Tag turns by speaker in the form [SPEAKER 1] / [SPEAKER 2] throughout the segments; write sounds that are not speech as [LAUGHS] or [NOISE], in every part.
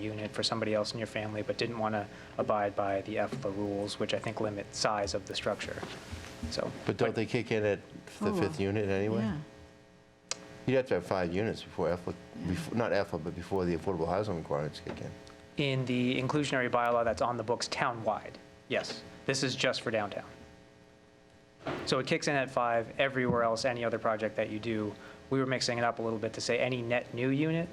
[SPEAKER 1] unit for somebody else in your family, but didn't want to abide by the EFLA rules, which I think limit size of the structure. So,
[SPEAKER 2] But don't they kick in at the
[SPEAKER 3] Oh,
[SPEAKER 2] fifth unit anyway?
[SPEAKER 3] Yeah,
[SPEAKER 2] You'd have to have five units before EFLA, befo- not EFLA, but before the affordable housing requirements kick in.
[SPEAKER 1] in the inclusionary bylaw that's on the books town-wide, yes, this is just for downtown. So it kicks in at five everywhere else, any other project that you do. We were mixing it up a little bit to say any net new unit,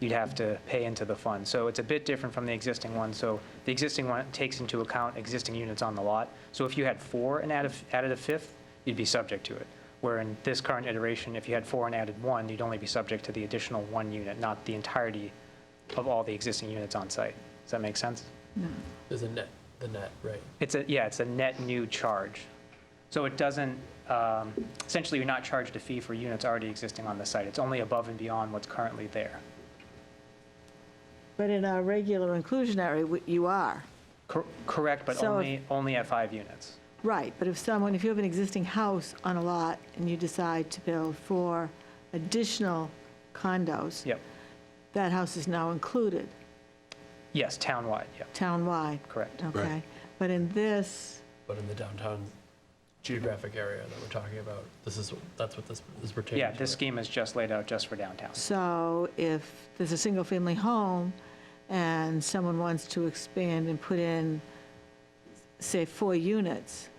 [SPEAKER 1] you'd have to pay into the fund. So it's a bit different from the existing one. So the existing one takes into account existing units on the lot. So if you had four and added, added a fifth, you'd be subject to it. Where in this current iteration, if you had four and added one, you'd only be subject to the additional one unit, not the entirety of all the existing units on site. Does that make sense?
[SPEAKER 4] There's a net, the net, right?
[SPEAKER 1] It's a, yeah, it's a net new charge. So it doesn't, um, essentially, you're not charged a fee for units already existing on the site. It's only above and beyond what's currently there.
[SPEAKER 3] but in our regular inclusionary, we- you are,
[SPEAKER 1] Cor- Correct, but
[SPEAKER 3] So if-
[SPEAKER 1] only, only at five units.
[SPEAKER 3] right, but if someone, if you have an existing house on a lot and you decide to build four additional condos,
[SPEAKER 1] Yep.
[SPEAKER 3] that house is now included
[SPEAKER 1] Yes, townwide, yep,
[SPEAKER 3] townwide,
[SPEAKER 1] correct.
[SPEAKER 3] okay? But in this,
[SPEAKER 4] But in the downtown
[SPEAKER 1] Mm-hmm.
[SPEAKER 4] geographic area that we're talking about, this is, that's what this is pertaining to.
[SPEAKER 1] Yeah, this scheme is just laid out just for downtown.
[SPEAKER 3] so if there's a single-family home and someone wants to expand and put in, say, four units,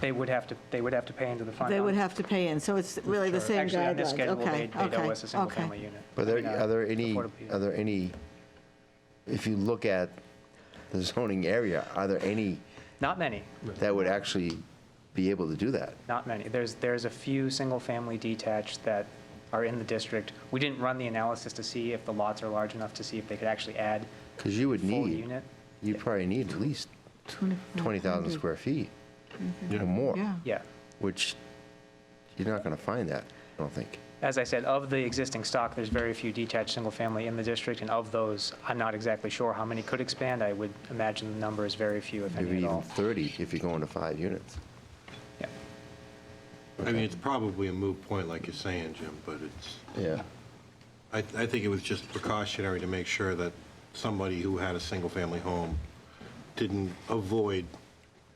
[SPEAKER 1] They would have to, they would have to pay into the fund.
[SPEAKER 3] they
[SPEAKER 1] on-
[SPEAKER 3] would have to pay in, so it's really the same guidelines, okay,
[SPEAKER 1] Actually, on this schedule, they- they'd owe
[SPEAKER 3] okay,
[SPEAKER 1] us a
[SPEAKER 3] okay.
[SPEAKER 1] single-family unit.
[SPEAKER 2] But there,
[SPEAKER 1] I mean, uh,
[SPEAKER 2] are there any,
[SPEAKER 1] affordable unit.
[SPEAKER 2] are there any, if you look at the zoning area, are there any
[SPEAKER 1] Not many.
[SPEAKER 2] that would actually be able to do that?
[SPEAKER 1] Not many. There's, there's a few single-family detached that are in the district. We didn't run the analysis to see if the lots are large enough to see if they could actually add
[SPEAKER 2] Because you would
[SPEAKER 1] full
[SPEAKER 2] need,
[SPEAKER 1] unit.
[SPEAKER 2] you'd probably need at least 20,000 square feet or more,
[SPEAKER 3] Yeah,
[SPEAKER 1] Yeah.
[SPEAKER 2] which you're not going to find that, I don't think.
[SPEAKER 1] As I said, of the existing stock, there's very few detached single-family in the district, and of those, I'm not exactly sure how many could expand. I would imagine the number is very few, if
[SPEAKER 2] Maybe
[SPEAKER 1] any at
[SPEAKER 2] even
[SPEAKER 1] all.
[SPEAKER 2] 30 if you're going to five units.
[SPEAKER 1] Yeah.
[SPEAKER 5] I mean, it's probably a moot point, like you're saying, Jim, but it's,
[SPEAKER 2] Yeah.
[SPEAKER 5] I, I think it was just precautionary to make sure that somebody who had a single-family home didn't avoid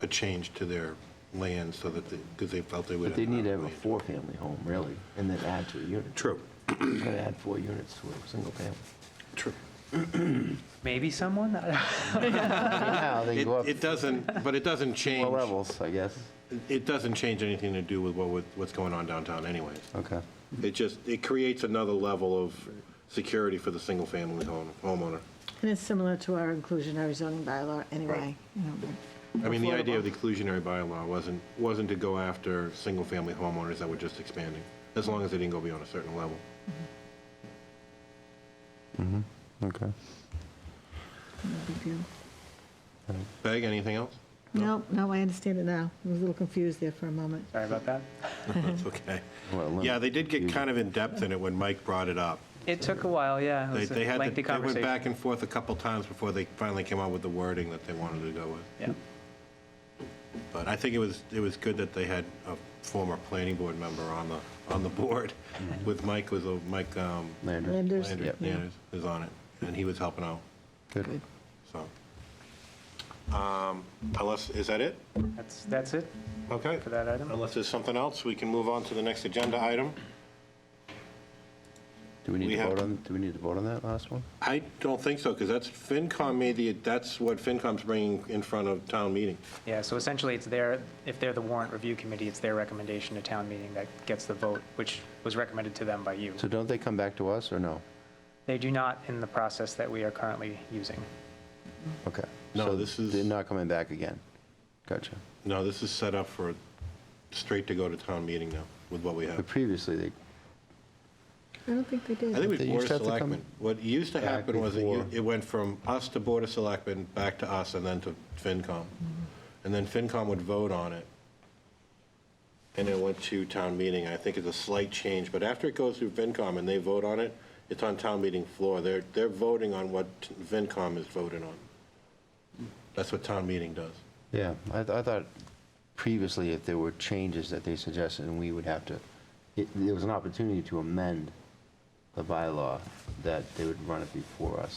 [SPEAKER 5] a change to their land so that, because they felt they would.
[SPEAKER 2] But they need to have
[SPEAKER 5] have
[SPEAKER 2] a four-family home, really, and then add to a unit.
[SPEAKER 5] True,
[SPEAKER 2] You're going to add four units to a single [LAUGHS] family.
[SPEAKER 5] true.
[SPEAKER 1] Maybe someone? [LAUGHS]
[SPEAKER 2] Now, they
[SPEAKER 5] It,
[SPEAKER 2] go up
[SPEAKER 5] it doesn't, but it
[SPEAKER 2] [LAUGHS]
[SPEAKER 5] doesn't
[SPEAKER 2] four
[SPEAKER 5] change,
[SPEAKER 2] levels, I guess.
[SPEAKER 5] it doesn't change anything to do with what, with what's going on downtown anyways.
[SPEAKER 2] Okay.
[SPEAKER 5] It just, it creates another level of security for the single-family home, homeowner.
[SPEAKER 3] and it's similar to our inclusionary zoning bylaw anyway.
[SPEAKER 5] Right.
[SPEAKER 3] you know.
[SPEAKER 5] I mean, the idea of the exclusionary bylaw wasn't, wasn't to go after single-family homeowners that were just expanding, as long as they didn't go beyond a certain level.
[SPEAKER 2] Okay.
[SPEAKER 3] No big deal.
[SPEAKER 5] Peg,
[SPEAKER 1] [LAUGHS]
[SPEAKER 5] anything else?
[SPEAKER 3] No, no, I understand it now. I was a little confused there for a moment.
[SPEAKER 1] Sorry about that.
[SPEAKER 5] That's okay.
[SPEAKER 2] Well, let me-
[SPEAKER 5] Yeah, they did get kind of in-depth in it when Mike brought it up.
[SPEAKER 1] It took a while, yeah. It
[SPEAKER 5] They
[SPEAKER 1] was
[SPEAKER 5] they
[SPEAKER 1] a
[SPEAKER 5] had,
[SPEAKER 1] lengthy
[SPEAKER 5] the- they went
[SPEAKER 1] conversation.
[SPEAKER 5] back and forth a couple times before they finally came up with the wording that they wanted to go with.
[SPEAKER 1] Yeah.
[SPEAKER 5] But I think it was, it was good that they had a former planning board member on the, on the board with Mike, was, a- Mike um,
[SPEAKER 2] Landry.
[SPEAKER 3] Landers,
[SPEAKER 5] Landry,
[SPEAKER 3] yeah.
[SPEAKER 5] yeah, was on it, and he was helping out,
[SPEAKER 2] Good.
[SPEAKER 5] so. Um, Unless, is that it?
[SPEAKER 1] That's, that's it
[SPEAKER 5] Okay.
[SPEAKER 1] for that item.
[SPEAKER 5] Unless there's something else, we can move on to the next agenda item.
[SPEAKER 2] Do we need
[SPEAKER 5] We
[SPEAKER 2] to
[SPEAKER 5] have-
[SPEAKER 2] vote on, do we need to vote on that last one?
[SPEAKER 5] I don't think so, because that's, FinCom made the, that's what FinCom's bringing in front of town meeting.
[SPEAKER 1] Yeah, so essentially, it's their, if they're the warrant review committee, it's their recommendation to town meeting that gets the vote, which was recommended to them by you.
[SPEAKER 2] So don't they come back to us, or no?
[SPEAKER 1] They do not in the process that we are currently using.
[SPEAKER 2] Okay.
[SPEAKER 5] No,
[SPEAKER 2] So
[SPEAKER 5] this is-
[SPEAKER 2] They're not coming back again. Gotcha.
[SPEAKER 5] No, this is set up for straight to go to town meeting now, with what we have.
[SPEAKER 2] But previously, they,
[SPEAKER 3] I don't think they
[SPEAKER 5] I think
[SPEAKER 3] did.
[SPEAKER 5] we
[SPEAKER 2] They
[SPEAKER 5] Board
[SPEAKER 2] used
[SPEAKER 5] of
[SPEAKER 2] to have to come
[SPEAKER 5] Selectmen. What used to
[SPEAKER 2] back
[SPEAKER 5] happen was it u-
[SPEAKER 2] before.
[SPEAKER 5] it went from us to Board of Selectmen, back to us, and then to FinCom. And then FinCom would vote on it. And it went to town meeting. I think it's a slight change, but after it goes through FinCom and they vote on it, it's on town meeting floor. They're, they're voting on what FinCom is voting on. That's what town meeting does.
[SPEAKER 2] yeah, I, th- I thought previously if there were changes that they suggested, and we would have to, it- there was an opportunity to amend the bylaw, that they would run it before us.